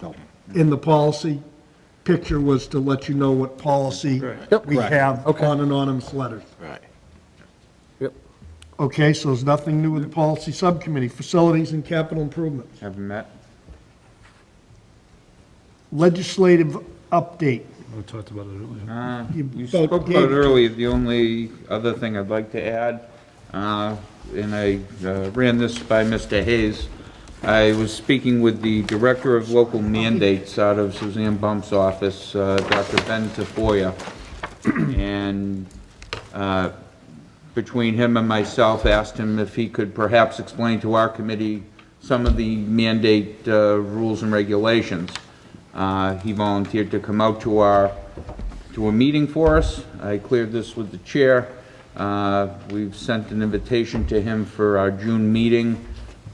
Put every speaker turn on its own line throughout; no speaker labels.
So,
in the policy picture was to let you know what policy
Yep.
we
Right.
have
Okay.
on anonymous letters.
right.
Okay, so there's nothing new with the policy subcommittee, facilities and capital improvements.
Have met.
Legislative update.
We talked about it earlier.
Uh,
You
You
both
spoke about
gave-
it earlier, the only other thing I'd like to add, uh, and I uh, ran this by Mr. Hayes. I was speaking with the Director of Local Mandates out of Suzanne Bump's office, uh, Dr. Ben Tafoya. And uh, between him and myself, asked him if he could perhaps explain to our committee some of the mandate uh, rules and regulations. Uh, He volunteered to come out to our, to a meeting for us. I cleared this with the chair. Uh, We've sent an invitation to him for our June meeting.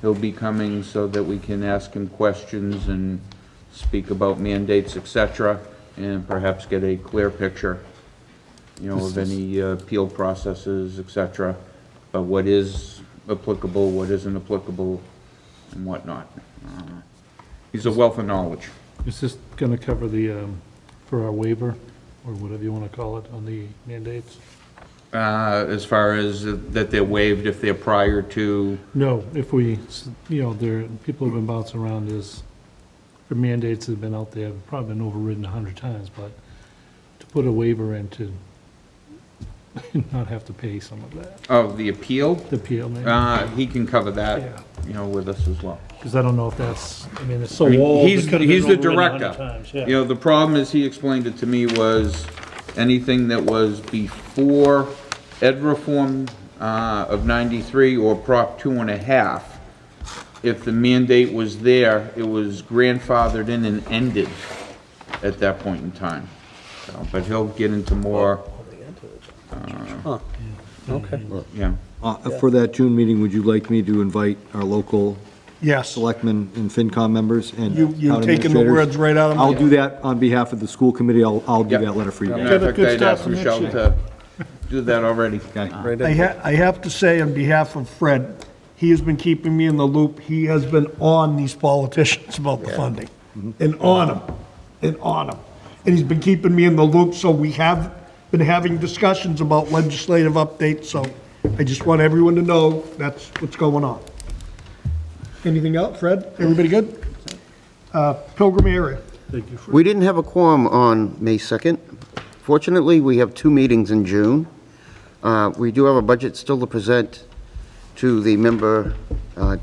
He'll be coming so that we can ask him questions and speak about mandates, et cetera, and perhaps get a clear picture you know, of any uh, appeal processes, et cetera, but what is applicable, what isn't applicable, and whatnot. Uh, He's a wealth of knowledge.
Is this going to cover the, um, for our waiver, or whatever you want to call it, on the mandates?
Uh, As far as that they're waived if they're prior to,
No, if we, s- you know, there, people have been bouncing around is, the mandates have been out there, probably been overridden a hundred times, but to put a waiver in to not have to pay some of that,
of the appeal,
the appeal, maybe,
uh, he can cover
Yeah.
that, you know, with us as well.
because I don't know if that's, I mean, it's
I
so
mean,
old,
he's-
it could have
he's
been
the
overridden a hundred
director.
times,
You
yeah.
know, the problem is, he explained it to me, was anything that was before ed reform uh, of 93 or Prop two and a half, if the mandate was there, it was grandfathered in and ended at that point in time. So, But he'll get into more, uh,
Okay.
yeah.
Uh, For that June meeting, would you like me to invite our local
Yes.
selectmen and FinCom members and
You- you've
town
taken the
administrators?
words right out of my-
I'll do that on behalf of the school committee. I'll, I'll do
Yep.
that letter for you
Yeah,
guys.
In fact,
good
I'd
start
asked
for next
Michelle
year.
to do that already.
Okay.
I ha, I have to say on behalf of Fred, he has been keeping me in the loop. He has been on these politicians about the funding. And on them, and on them. And he's been keeping me in the loop, so we have been having discussions about legislative updates, so I just want everyone to know that's what's going on. Anything else, Fred? Everybody good? Uh, Pilgrim area.
Thank you for,
We didn't have a quorum on May 2nd. Fortunately, we have two meetings in June. Uh, We do have a budget still to present to the member uh,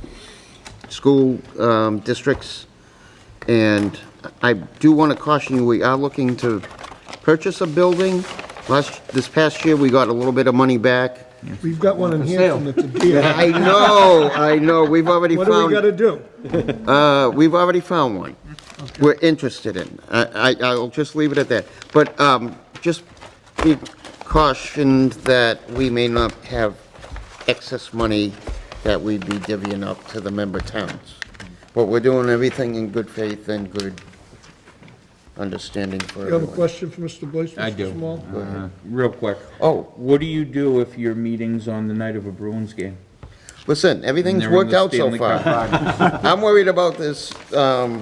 school um, districts. And I do want to caution you, we are looking to purchase a building. Last, this past year, we got a little bit of money back.
We've got one in Hanson that's a deal.
I know, I know, we've already
What
found.
do we gotta do?
Uh, we've already found one we're interested in. I, I, I'll just leave it at that. But, um, just be cautioned that we may not have excess money that we'd be divvying up to the member towns. But we're doing everything in good faith and good understanding for
You have a
everyone.
question for Mr. Blaze,
I
Mr.
do.
Small?
Uh, Real quick. Oh, what do you do if your meeting's on the night of a Bruins game?
Listen, everything's
They're in
worked
the
out so
Stanley
far.
Cup
I'm worried about this, um,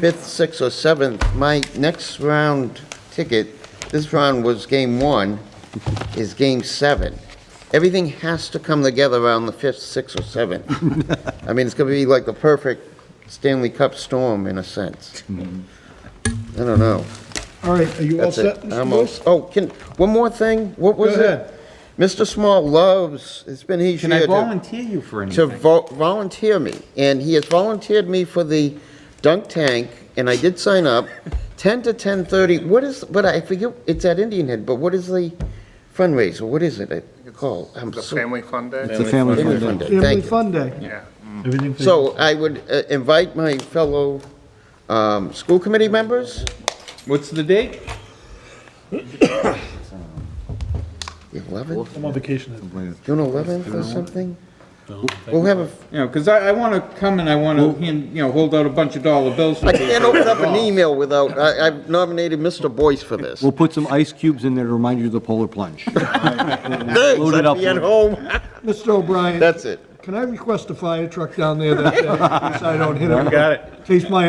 fifth, sixth, or seventh. My next round ticket, this round was game one, is game seven. Everything has to come together around the fifth, sixth, or seventh. I mean, it's gonna be like the perfect Stanley Cup storm in a sense. I don't know.
All right, are you all
That's
set,
it.
Mr.
I'm all-
Boyce?
Oh, can, one more thing? What was it?
ahead.
Mr. Small loves, it's been his year
Can I
to-
volunteer you for
to
anything?
vo- volunteer me, and he has volunteered me for the dunk tank, and I did sign up, 10 to 10:30, what is, but I forget, it's at Indian Head, but what is the fundraiser, what is it called? I'm
The
so-
family fun day?
It's a family
Family
fun
fun
day.
day,
Family
thank you.
Fun Day.
Yeah.
everything. for-
So I would uh, invite my fellow um, school committee members,
What's the date?
the 11th,
I'm on vacation.
June 11th or something? We'll have a,
You know, because I, I want to come and I want to, you know, hold out a bunch of dollar bills. for
I can't
people.
open up an email without, I- I've nominated Mr. Boyce for this.
We'll put some ice cubes in there to remind you of the polar plunge.
Thanks,
load it
I'll
up
be at
with-
home,
Mr. O'Brien,
that's it.
can I request a fire truck down there that day, so I don't hit it?
Got it.
In case my